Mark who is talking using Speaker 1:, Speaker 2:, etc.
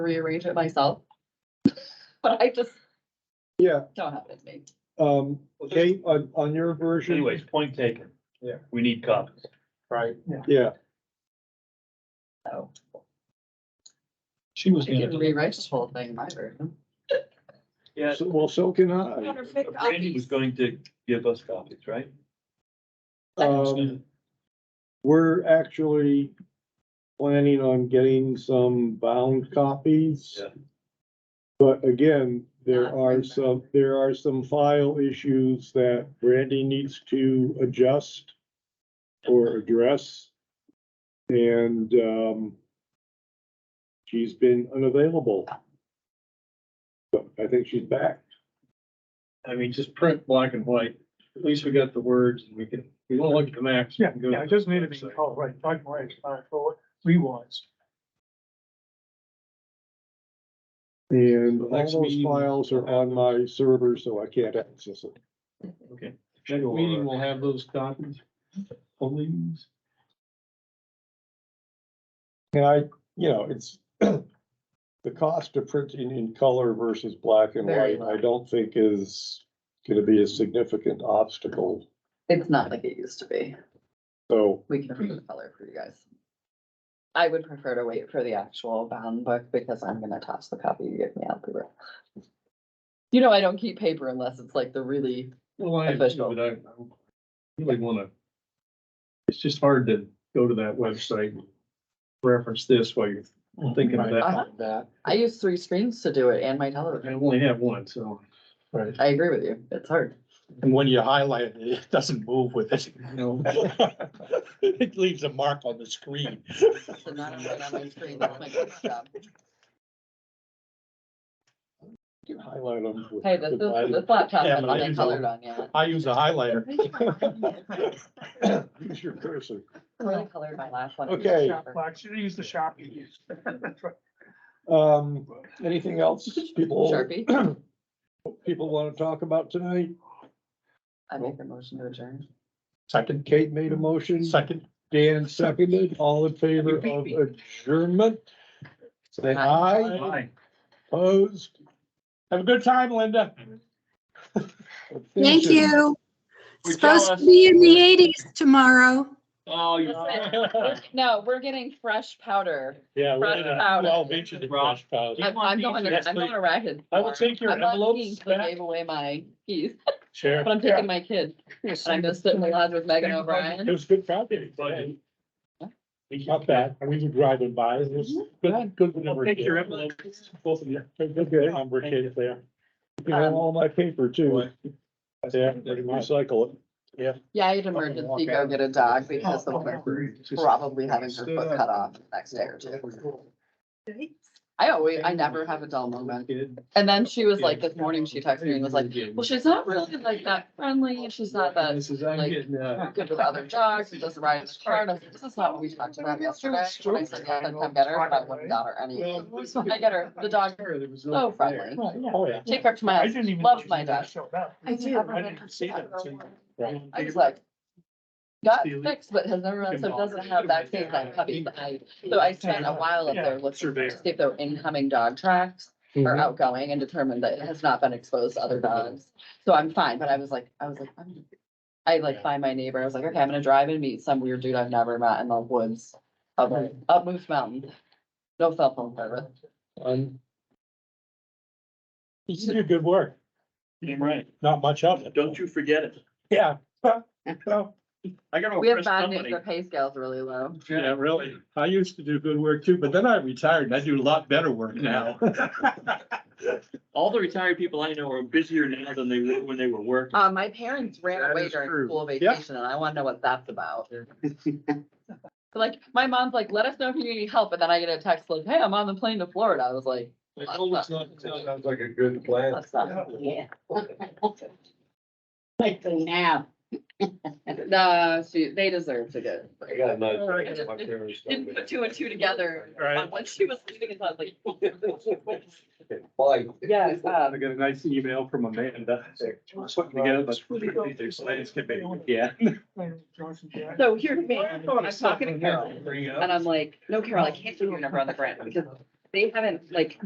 Speaker 1: rearrange it myself. But I just
Speaker 2: Yeah,
Speaker 1: don't have it in me.
Speaker 2: um, okay, on, on your version.
Speaker 3: Anyways, point taken.
Speaker 2: Yeah.
Speaker 3: We need copies.
Speaker 4: Right.
Speaker 2: Yeah,
Speaker 1: So
Speaker 4: She was.
Speaker 1: I can rewrite this whole thing in my version.
Speaker 3: Yeah.
Speaker 2: so- well, so can I.
Speaker 1: Perfect
Speaker 3: Randy was going to give us copies, right?
Speaker 2: Um, we're actually planning on getting some bound copies.
Speaker 3: Yeah.
Speaker 2: But again, there
Speaker 1: Not
Speaker 2: are
Speaker 1: written.
Speaker 2: some, there are some file issues that Randy needs to adjust or address. And, um, she's been unavailable. But I think she's back.
Speaker 4: I mean, just print black and white. At least we got the words and we can, we won't look at the maps.
Speaker 5: Yeah, yeah, it doesn't need to be, oh, right, black and white, it's fine for what we want.
Speaker 2: And
Speaker 4: So
Speaker 2: all
Speaker 4: next
Speaker 2: those
Speaker 4: meeting-
Speaker 2: files are on my server, so I can't access it.
Speaker 4: Okay. Next meeting, we'll have those copies. Please.
Speaker 2: And I, you know, it's the cost of printing in color versus black and
Speaker 1: Very
Speaker 2: white, I don't think is gonna be a significant obstacle.
Speaker 1: It's not like it used to be.
Speaker 2: So,
Speaker 1: We can
Speaker 5: Hmm.
Speaker 1: approve the color for you guys. I would prefer to wait for the actual bound book because I'm gonna toss the copy you give me out the room. You know, I don't keep paper unless it's like the really,
Speaker 4: Well, I, but
Speaker 1: Official.
Speaker 4: I I really wanna. It's just hard to go to that website, and reference this while you're thinking of
Speaker 1: Uh-huh.
Speaker 4: that. That.
Speaker 1: I use three screens to do it and my
Speaker 4: I
Speaker 1: television.
Speaker 4: only have one, so.
Speaker 5: Right,
Speaker 1: I agree with you. It's hard.
Speaker 5: and when you highlight it, it doesn't move with it.
Speaker 4: No.
Speaker 5: It leaves a mark on the screen.
Speaker 1: So not on my- on my screen, that's my desk job.
Speaker 2: you can highlight them. with-
Speaker 1: Hey, this is,
Speaker 2: with my-
Speaker 1: this laptop
Speaker 5: Yeah, but I
Speaker 1: hasn't been
Speaker 5: use all-
Speaker 1: colored on yet.
Speaker 5: I use a highlighter.
Speaker 2: Use your cursor.
Speaker 1: I really colored my last one.
Speaker 2: Okay.
Speaker 5: I should use the Sharpie.
Speaker 2: Um, anything else people,
Speaker 1: Sharpie,
Speaker 2: people wanna talk about tonight?
Speaker 1: I make a motion to adjourn.
Speaker 5: Second,
Speaker 2: Kate made a motion,
Speaker 5: second,
Speaker 2: Dan seconded, all in favor of adjournment? Say aye,
Speaker 3: Aye.
Speaker 2: opposed?
Speaker 5: have a good time, Linda.
Speaker 6: Thank
Speaker 2: abstentions?
Speaker 6: you.
Speaker 3: We're
Speaker 6: Supposed
Speaker 3: jealous.
Speaker 6: to be in the eighties tomorrow.
Speaker 3: Oh, you're.
Speaker 1: No, we're getting fresh powder.
Speaker 5: Yeah.
Speaker 1: Fresh powder.
Speaker 5: Well, each of the brush powder.
Speaker 1: I'm, I'm going, to- I'm going to Racket.
Speaker 5: I will take your
Speaker 1: I'm not
Speaker 5: envelopes
Speaker 1: skiing 'cause I
Speaker 5: back.
Speaker 1: Gave away my keys,
Speaker 5: Sure.
Speaker 1: but I'm taking my kid. And I'm just sitting in the lodge with Megan
Speaker 5: It
Speaker 1: O'Brien.
Speaker 5: was good property.
Speaker 3: Buddy.
Speaker 5: Not bad, and we were driving by, it was
Speaker 2: Mm-hmm.
Speaker 5: good, good. when we were
Speaker 3: Take your
Speaker 5: kids.
Speaker 3: envelopes, both of you.
Speaker 5: Good, good, good, um, we're Um, kids there.
Speaker 2: You have all my paper too.
Speaker 5: Yeah, pretty much.
Speaker 2: Recycle it.
Speaker 1: Yeah, I had emergency go get a dog because the woman probably having her foot cut off the next day or two. I always, I never have a dull moment. And then she was like, this morning she texted me and was like, Well, she's not really like that friendly, and she's not that
Speaker 4: This is, I'm
Speaker 1: like,
Speaker 4: getting, uh.
Speaker 1: good with other dogs, she doesn't ride in the car, and I was like, this is not what we talked about yesterday. And I said, yeah, I'd come get her, but I wouldn't got her any. So I get her, the dog, so friendly,
Speaker 5: Oh, yeah.
Speaker 1: take her to my
Speaker 5: I
Speaker 1: house,
Speaker 5: didn't even.
Speaker 1: loves
Speaker 5: know
Speaker 1: my
Speaker 5: you
Speaker 1: dog.
Speaker 5: showed up.
Speaker 1: I do.
Speaker 5: I didn't see that until- Right.
Speaker 1: I was like, got fixed, but has never, so doesn't have that same kind of puppy that I, so I spent a while up there looking to see if there were incoming dog tracks. or
Speaker 4: Mm-hmm.
Speaker 5: Mhm.
Speaker 1: outgoing and determined that it has not been exposed to other dogs. So I'm fine, but I was like, I was like, I'm. I like find my neighbor, I was like, okay, I'm gonna drive and meet some weird dude I've never met in the woods. Up,
Speaker 4: Mm-hmm.
Speaker 1: up Moose Mountain. No cell phone service.
Speaker 5: Um, You do good work,
Speaker 3: Damn right.
Speaker 5: not much of it.
Speaker 3: Don't you forget it.
Speaker 5: Yeah. Well,
Speaker 3: I
Speaker 4: Oh,
Speaker 3: got
Speaker 1: We
Speaker 3: to
Speaker 1: have
Speaker 3: press
Speaker 1: bad news,
Speaker 3: company.
Speaker 1: the pay scale's really low.
Speaker 5: Yeah, really, I used to do good work too, but then I retired and I do a lot better work now.
Speaker 3: All the retired people I know are busier now than they were when they were working.
Speaker 1: Uh, my parents ran
Speaker 4: That
Speaker 1: away
Speaker 4: is
Speaker 1: during
Speaker 4: true.
Speaker 1: school vacation and I wanna know what that's about. Like, my mom's like, let us know if you need any help, and then I get a text like, hey, I'm on the plane to Florida. I was like,
Speaker 4: Sounds like a good plan.
Speaker 1: that's not.
Speaker 7: Yeah. Like for now.
Speaker 1: Nah, she, they deserve to get.
Speaker 4: I got my.
Speaker 1: I just Didn't put two and two together.
Speaker 5: Right.
Speaker 1: Once she was leaving, it's not like,
Speaker 4: Bye.
Speaker 1: yeah, um,
Speaker 5: I got a nice email from Amanda, putting together this really good these plans can be, yeah.
Speaker 1: so here's me, I'm talking to Carol. And I'm like, no, Carol, I can't do your number on the grant because they haven't like